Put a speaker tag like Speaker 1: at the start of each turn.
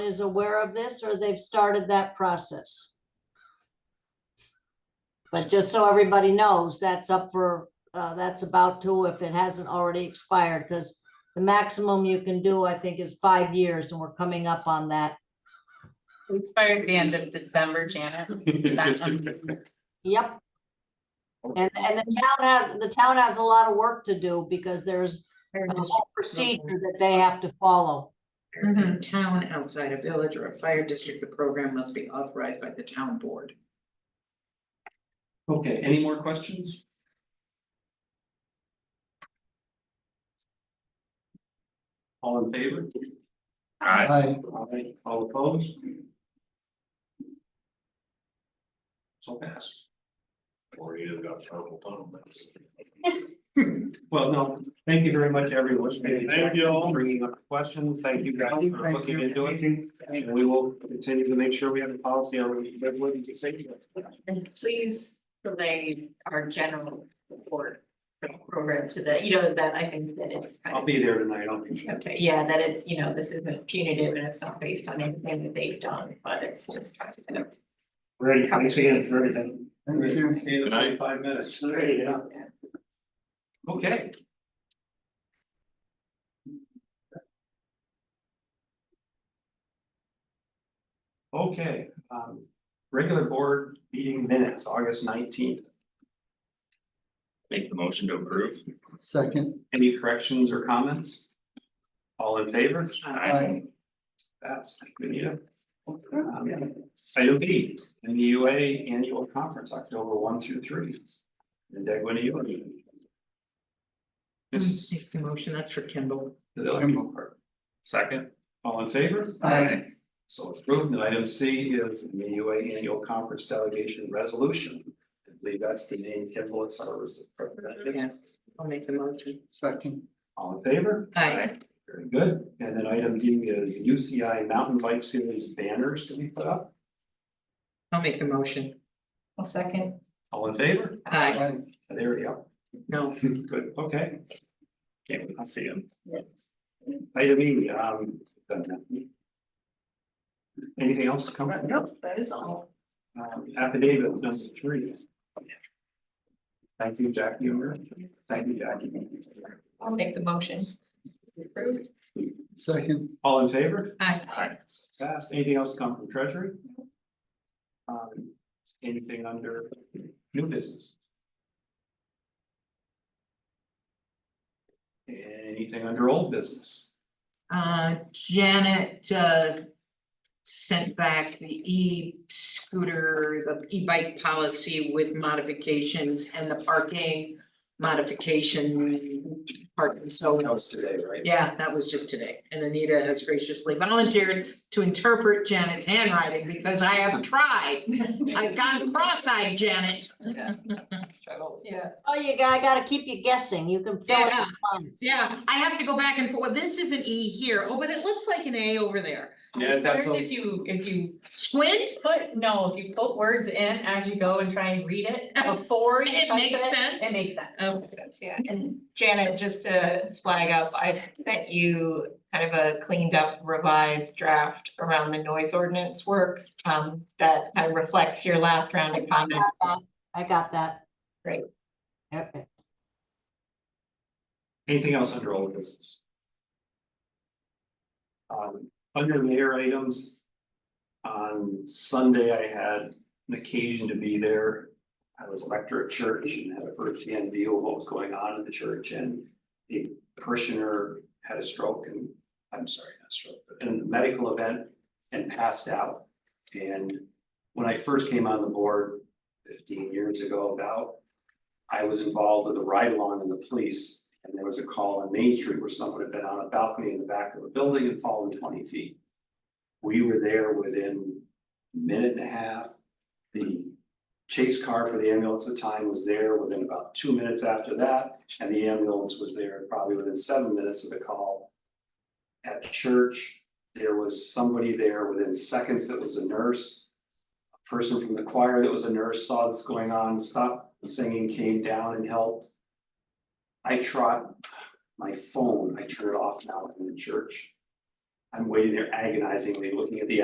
Speaker 1: is aware of this or they've started that process. But just so everybody knows, that's up for, uh, that's about to, if it hasn't already expired, because the maximum you can do, I think, is five years and we're coming up on that.
Speaker 2: We expired the end of December, Janet. That one.
Speaker 1: Yep. And, and the town has, the town has a lot of work to do because there's a whole procedure that they have to follow.
Speaker 3: In a town outside a village or a fire district, the program must be authorized by the town board.
Speaker 4: Okay, any more questions? All in favor?
Speaker 5: Aye.
Speaker 4: Aye. All opposed? So pass.
Speaker 5: Or you have got terrible tunnel mess.
Speaker 4: Well, no, thank you very much, everyone.
Speaker 5: Thank you all.
Speaker 4: Bringing up questions. Thank you guys for looking into it. And we will continue to make sure we have a policy on what you say.
Speaker 6: And please relay our general support for the program to the, you know, that I think that it's kind
Speaker 4: I'll
Speaker 6: of.
Speaker 4: be there tonight. I'll be.
Speaker 6: Okay, yeah, that it's, you know, this isn't punitive and it's not based on anything that they've done, but it's just trying to kind of.
Speaker 4: Ready,
Speaker 6: cover bases.
Speaker 4: Thank you. See you
Speaker 5: Good
Speaker 4: in
Speaker 5: night.
Speaker 4: five minutes. Ready, yeah. Okay. Okay, um, regular board meeting minutes, August nineteenth.
Speaker 5: Make the motion to approve.
Speaker 7: Second,
Speaker 4: Any corrections or comments? All in favor?
Speaker 7: Aye.
Speaker 4: That's, we need it. Um, Item B, NUA Annual Conference, October one through three. In Dagwin, U. This is
Speaker 3: Take the motion, that's for Kimball.
Speaker 4: the Dagwin part. Second, all in favor?
Speaker 7: Aye.
Speaker 4: So approved, and item C is the NUA Annual Conference Delegation Resolution. I believe that's the name Kimball is our representative.
Speaker 3: Yes. I'll make the motion.
Speaker 7: second,
Speaker 4: All in favor?
Speaker 3: Aye.
Speaker 4: Very good. And then item D is UCI Mountain Bike Series banners to be put up.
Speaker 3: I'll make the motion.
Speaker 6: I'll second.
Speaker 4: All in favor?
Speaker 3: Aye.
Speaker 7: aye,
Speaker 4: There we go.
Speaker 3: No.
Speaker 4: Good, okay. Okay, I'll see you. Item E, um. Anything else to come?
Speaker 3: Uh, Nope, that is all.
Speaker 4: Um, affidavit number three. Thank you, Jackie. Thank you, Jackie.
Speaker 6: I'll make the motion. Approved.
Speaker 7: second,
Speaker 4: All in favor?
Speaker 3: Aye.
Speaker 6: Uh,
Speaker 5: Aye.
Speaker 4: Passed. Anything else to come from Treasury? Um, anything under new business? Anything under old business?
Speaker 3: Uh, Janet, uh. Sent back the e-scooter, the e-bike policy with modifications and the parking modification. Parking, so.
Speaker 4: That was today, right?
Speaker 3: Yeah, that was just today, and Anita has graciously volunteered to interpret Janet's handwriting, because I have tried. I've gone cross-eyed, Janet.
Speaker 6: Struggled, yeah.
Speaker 1: Oh, you got, I gotta keep you guessing. You can fill in the
Speaker 3: Yeah.
Speaker 1: blanks.
Speaker 3: Yeah, I have to go back and forth, Well, this is an E here, oh, but it looks like an A over there.
Speaker 4: Yeah, that's all.
Speaker 2: If you, if you
Speaker 3: Squint,
Speaker 2: put, no, if you put words in as you go and try and read it before you
Speaker 3: It
Speaker 2: type
Speaker 3: makes sense.
Speaker 2: It makes sense.
Speaker 3: oh,
Speaker 6: sense, yeah. And Janet, just to flag up, I sent you kind of a cleaned up revised draft around the noise ordinance work. Um, that kind of reflects your last round of
Speaker 1: I
Speaker 6: comments.
Speaker 1: got that. I got that.
Speaker 6: Great.
Speaker 1: Okay.
Speaker 4: Anything else under old business? Um, under mayor items. On Sunday, I had an occasion to be there. I was elected at church and had a firsthand view of what was going on in the church and. The parishioner had a stroke and, I'm sorry, not a stroke, but in a medical event and passed out. And when I first came on the board fifteen years ago about. I was involved with a ride along in the police and there was a call on Main Street where someone had been on a balcony in the back of a building and fallen twenty feet. We were there within a minute and a half. The chase car for the ambulance at the time was there within about two minutes after that, and the ambulance was there probably within seven minutes of the call. At church, there was somebody there within seconds that was a nurse. A Person from the choir that was a nurse saw this going on, stopped singing, came down and helped. I trot my phone, I turn it off now in the church. I'm waiting there agonizingly, looking at the